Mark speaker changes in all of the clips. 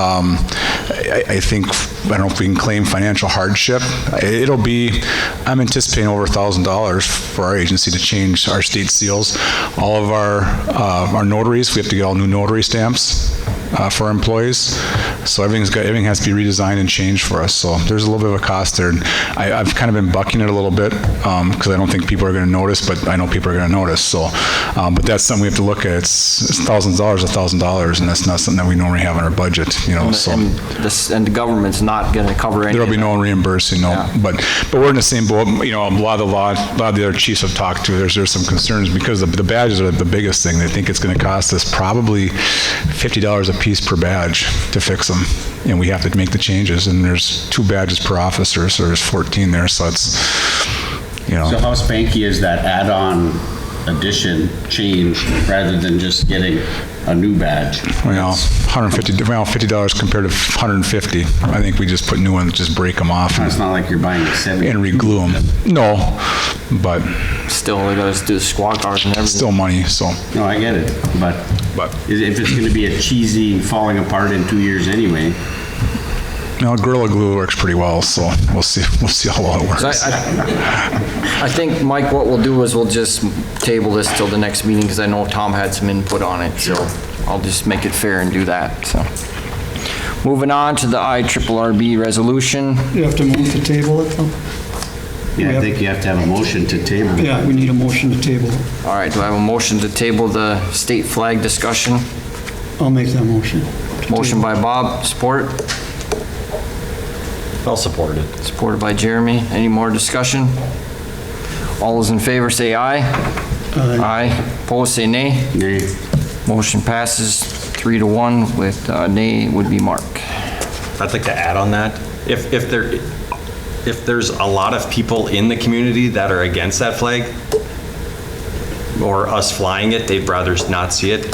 Speaker 1: Um, I I think, I don't know if we can claim financial hardship. It'll be, I'm anticipating over $1,000 for our agency to change our state seals. All of our, uh, our notaries, we have to get all new notary stamps uh, for our employees. So everything's got, everything has to be redesigned and changed for us. So there's a little bit of a cost there. And I, I've kind of been bucking it a little bit because I don't think people are going to notice, but I know people are going to notice. So, um, but that's something we have to look at. It's, it's thousands of dollars, a thousand dollars, and that's not something that we normally have in our budget, you know. So
Speaker 2: And this, and the government's not going to cover any.
Speaker 1: there'll
Speaker 2: of
Speaker 1: be
Speaker 2: it.
Speaker 1: no reimbursing, no. But but we're in the same boat. You know, a lot of the law, a lot of the other chiefs I've talked to, there's there's some concerns because the, the badges are the biggest thing. They think it's going to cost us probably fifty dollars a piece per badge to fix them, and we have to make the changes. And there's two badges per officer, so there's fourteen there. So it's you know.
Speaker 3: So how spanky is that add-on addition change rather than just getting a new badge?
Speaker 1: Well, 150, well, $50 compared to 150. I think we just put new ones, just break them off
Speaker 3: It's
Speaker 1: and
Speaker 3: not like you're buying a seven.
Speaker 1: and reglue them. No, but
Speaker 2: Still, they got to do the squad cars and everything.
Speaker 1: still money, so.
Speaker 3: No, I get it, but
Speaker 1: But-
Speaker 3: i- if it's gonna be a cheesy falling apart in two years anyway,
Speaker 1: Now, Gorilla Glue works pretty well, so we'll see, we'll see how well it
Speaker 2: So I,
Speaker 1: works.
Speaker 2: I- I think, Mike, what we'll do is we'll just table this till the next meeting, because I know Tom had some input on it, so I'll just make it fair and do that, so. Moving on to the IRRB resolution.
Speaker 4: You have to move to table it, though?
Speaker 3: yeah, I
Speaker 4: Yep.
Speaker 3: think you have to have a motion to table.
Speaker 4: Yeah, we need a motion to table. it.
Speaker 2: All right, do I have a motion to table the state flag discussion?
Speaker 4: I'll make that motion.
Speaker 2: Motion by Bob, support? I'll support it. Supported by Jeremy. Any more discussion? All those in favor say aye. Aye. Opposed, say nay.
Speaker 3: Nay.
Speaker 2: Motion passes three to one with uh, nay would be Mark.
Speaker 5: I'd like to add on that. If, if there, if there's a lot of people in the community that are against that flag, or us flying it, they'd rather not see it,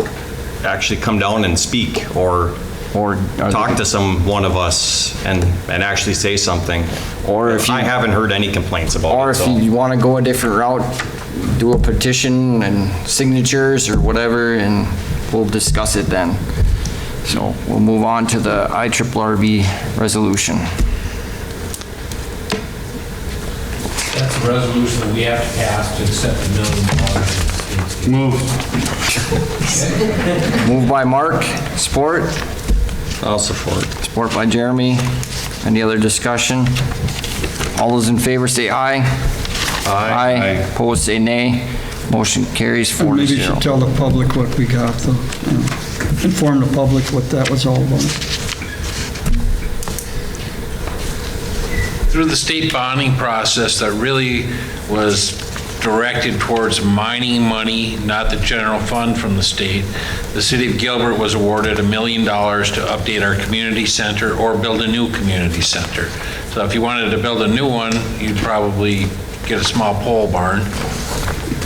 Speaker 5: actually come down and speak, or
Speaker 2: Or- uh,
Speaker 5: talk to some, one of us, and, and actually say something.
Speaker 2: Or if you-
Speaker 5: I haven't heard any complaints about it.
Speaker 2: Or if
Speaker 5: so-
Speaker 2: you want to go a different route, do a petition and signatures or whatever, and we'll discuss it then. So we'll move on to the IRRB resolution.
Speaker 6: That's a resolution that we have to pass to accept the minimum water.
Speaker 3: Move.
Speaker 2: Moved by Mark, support,
Speaker 5: I'll support.
Speaker 2: support by Jeremy. Any other discussion? All those in favor say aye. Aye. Aye. Opposed say nay. Motion carries four to
Speaker 4: Maybe you
Speaker 2: zero.
Speaker 4: should tell the public what we got, though. you know. Inform the public what that was all about.
Speaker 6: Through the state bonding process that really was directed towards mining money, not the general fund from the state, the city of Gilbert was awarded a million dollars to update our community center or build a new community center. So if you wanted to build a new one, you'd probably get a small pole barn.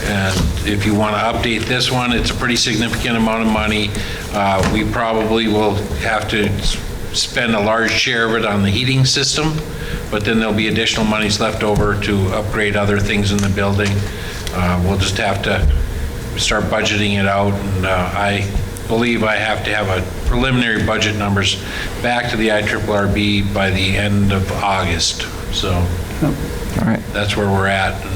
Speaker 6: And if you want to update this one, it's a pretty significant amount of money. Uh, We probably will have to s- spend a large share of it on the heating system, but then there'll be additional monies left over to upgrade other things in the building. Uh, We'll just have to start budgeting it out, and uh, I believe I have to have a preliminary budget numbers back to the IRRB by the end of August, so
Speaker 2: All right,
Speaker 6: that's where we're at. And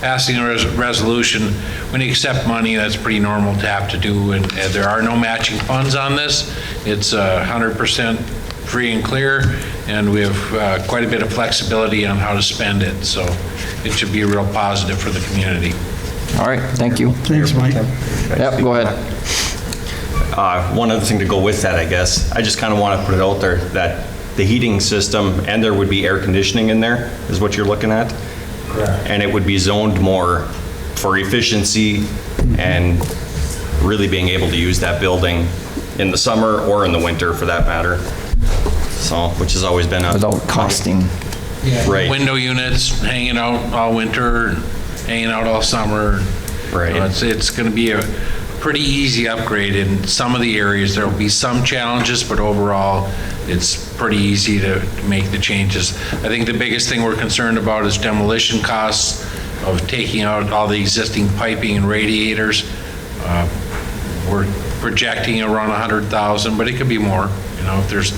Speaker 6: Passing a res- resolution, when you accept money, that's pretty normal to have to do, and and there are no matching funds on this. It's uh, 100% free and clear, and we have uh, quite a bit of flexibility on how to spend it, so it should be a real positive for the community.
Speaker 2: all right, thank you.
Speaker 4: Thanks, Mike.
Speaker 2: Yep, go ahead.
Speaker 5: Uh, One other thing to go with that, I guess, I just kind of want to put it out there that the heating system, and there would be air conditioning in there, is what you're looking at? Correct. And it would be zoned more for efficiency and really being able to use that building in the summer or in the winter for that matter. So, which has always been a.
Speaker 2: Without costing.
Speaker 5: Right,
Speaker 6: Window units hanging out all winter, hanging out all summer.
Speaker 5: Right.
Speaker 6: You know, It's, it's going to be a pretty easy upgrade in some of the areas. There will be some challenges, but overall, it's pretty easy to make the changes. I think the biggest thing we're concerned about is demolition costs of taking out all the existing piping and radiators. Uh, We're projecting around 100,000, but it could be more, you know, if there's